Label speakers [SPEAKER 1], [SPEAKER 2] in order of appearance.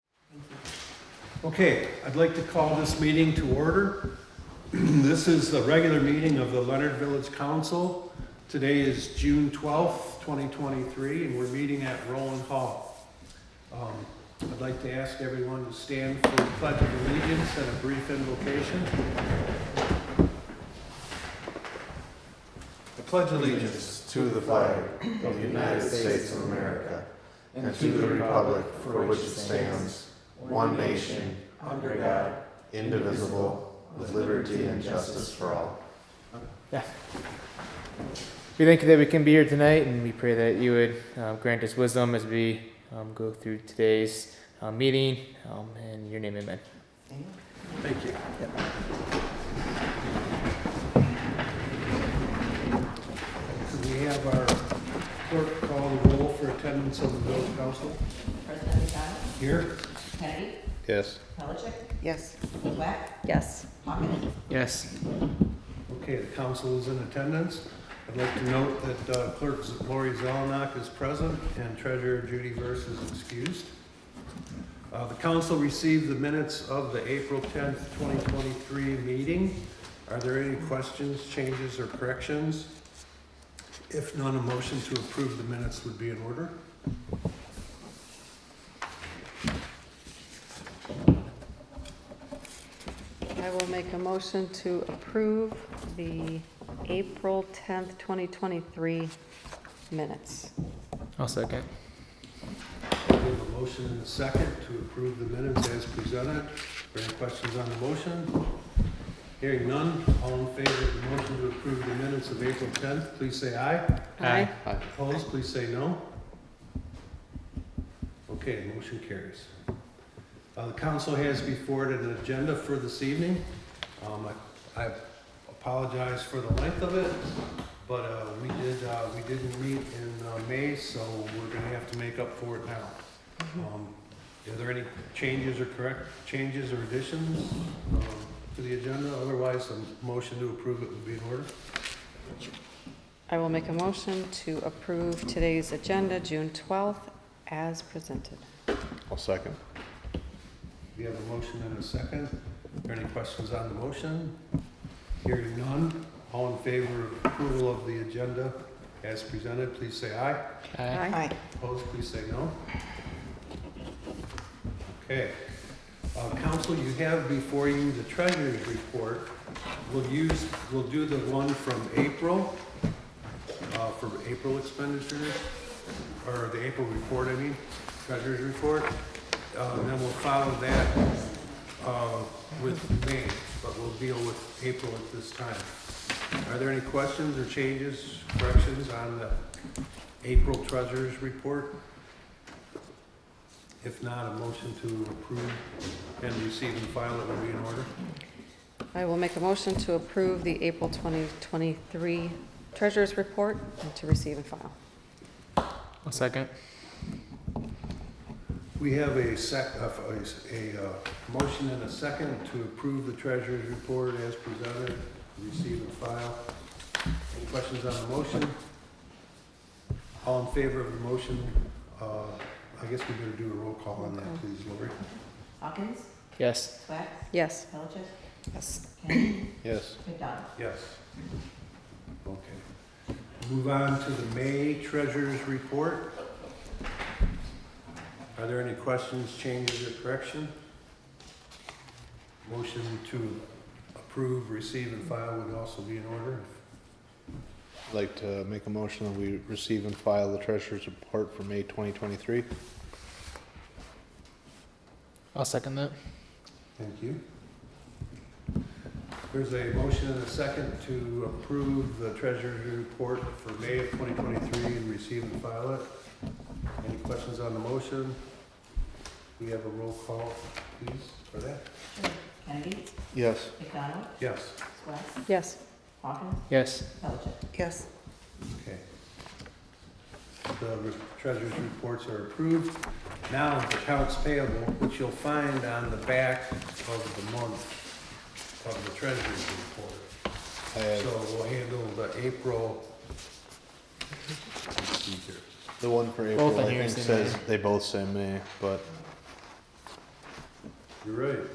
[SPEAKER 1] Okay, I'd like to call this meeting to order. This is the regular meeting of the Leonard Village Council. Today is June 12th, 2023, and we're meeting at Roland Hall. Um, I'd like to ask everyone to stand for the Pledge of Allegiance and a brief invocation.
[SPEAKER 2] I pledge allegiance to the flag of the United States of America and to the republic for which it stands, one nation, under God, indivisible, with liberty and justice for all.
[SPEAKER 3] We thank you that we can be here tonight, and we pray that you would um, grant us wisdom as we um, go through today's uh, meeting. Um, in your name, amen.
[SPEAKER 1] Thank you. Could we have our clerk call the roll for attendance on the village council?
[SPEAKER 4] President McDonald,
[SPEAKER 1] Here?
[SPEAKER 4] Kennedy,
[SPEAKER 2] Yes.
[SPEAKER 4] Pelichick,
[SPEAKER 5] Yes.
[SPEAKER 4] Whack,
[SPEAKER 5] Yes.
[SPEAKER 4] Hawkins,
[SPEAKER 3] Yes.
[SPEAKER 1] Okay, the council is in attendance. I'd like to note that uh, clerk Lori Zelnok is present and treasurer Judy Verse is excused. Uh, The council received the minutes of the April 10th, 2023 meeting. Are there any questions, changes, or corrections? If none, a motion to approve the minutes would be in order.
[SPEAKER 5] I will make a motion to approve the April 10th, 2023 minutes.
[SPEAKER 3] I'll second.
[SPEAKER 1] We have a motion and a second to approve the minutes as presented. Are there any questions on the motion? Hearing none, all in favor of the motion to approve the minutes of April 10th, please say aye.
[SPEAKER 3] Aye.
[SPEAKER 1] Opposed, please say no. Okay, motion carries. Uh, The council has before it an agenda for this evening. Um, I- I apologize for the length of it, but uh, we did, uh, we didn't meet in uh, May, so we're gonna have to make up for it now. Um, Are there any changes or correct, changes or additions um, to the agenda? Otherwise, a motion to approve it would be in order.
[SPEAKER 5] I will make a motion to approve today's agenda, June 12th, as presented.
[SPEAKER 2] I'll second.
[SPEAKER 1] We have a motion and a second. Are there any questions on the motion? Hearing none, all in favor of approval of the agenda as presented, please say aye.
[SPEAKER 3] Aye.
[SPEAKER 1] Opposed, please say no. Okay. Uh, Council, you have before you the treasurer's report. We'll use, we'll do the one from April, uh, for April expenditures, or the April report, I mean, treasurer's report. Uh, And then we'll follow that uh, with May, but we'll deal with April at this time. Are there any questions or changes, corrections on the April Treasurers Report? If not, a motion to approve and receive and file it would be in order.
[SPEAKER 5] I will make a motion to approve the April 2023 Treasurers' Report and to receive and file.
[SPEAKER 3] I'll second.
[SPEAKER 1] We have a sec, uh, a, a, uh, motion and a second to approve the Treasurers Report as presented, receive and file. Any questions on the motion? All in favor of the motion? Uh, I guess we better do a roll call on that,
[SPEAKER 5] Okay.
[SPEAKER 1] please, Lori.
[SPEAKER 4] Hawkins,
[SPEAKER 3] Yes.
[SPEAKER 4] Swack,
[SPEAKER 5] Yes.
[SPEAKER 4] Pelichick,
[SPEAKER 5] Yes.
[SPEAKER 4] Kennedy,
[SPEAKER 2] Yes.
[SPEAKER 4] McDonald.
[SPEAKER 1] Yes. Okay. Move on to the May Treasurers Report. Are there any questions, changes, or correction? Motion to approve, receive, and file would also be in order.
[SPEAKER 2] I'd like to make a motion that we receive and file the treasurer's report for May 2023.
[SPEAKER 3] I'll second that.
[SPEAKER 1] Thank you. There's a motion and a second to approve the Treasurers Report for May of 2023 and receive and file it. Any questions on the motion? We have a roll call, please, for that?
[SPEAKER 4] Kennedy,
[SPEAKER 2] Yes.
[SPEAKER 4] McDonald,
[SPEAKER 1] Yes.
[SPEAKER 4] Swack,
[SPEAKER 5] Yes.
[SPEAKER 4] Hawkins,
[SPEAKER 3] Yes.
[SPEAKER 4] Pelichick.
[SPEAKER 5] Yes.
[SPEAKER 1] Okay. The re- treasurer's reports are approved. Now, accounts payable, which you'll find on the back of the month of the treasurer's report.
[SPEAKER 2] I have
[SPEAKER 1] So we'll handle the April. let's see here.
[SPEAKER 2] the one for April,
[SPEAKER 3] on
[SPEAKER 2] I
[SPEAKER 3] here
[SPEAKER 2] think
[SPEAKER 3] say
[SPEAKER 2] says
[SPEAKER 3] May.
[SPEAKER 2] they both say May, but
[SPEAKER 1] You're right.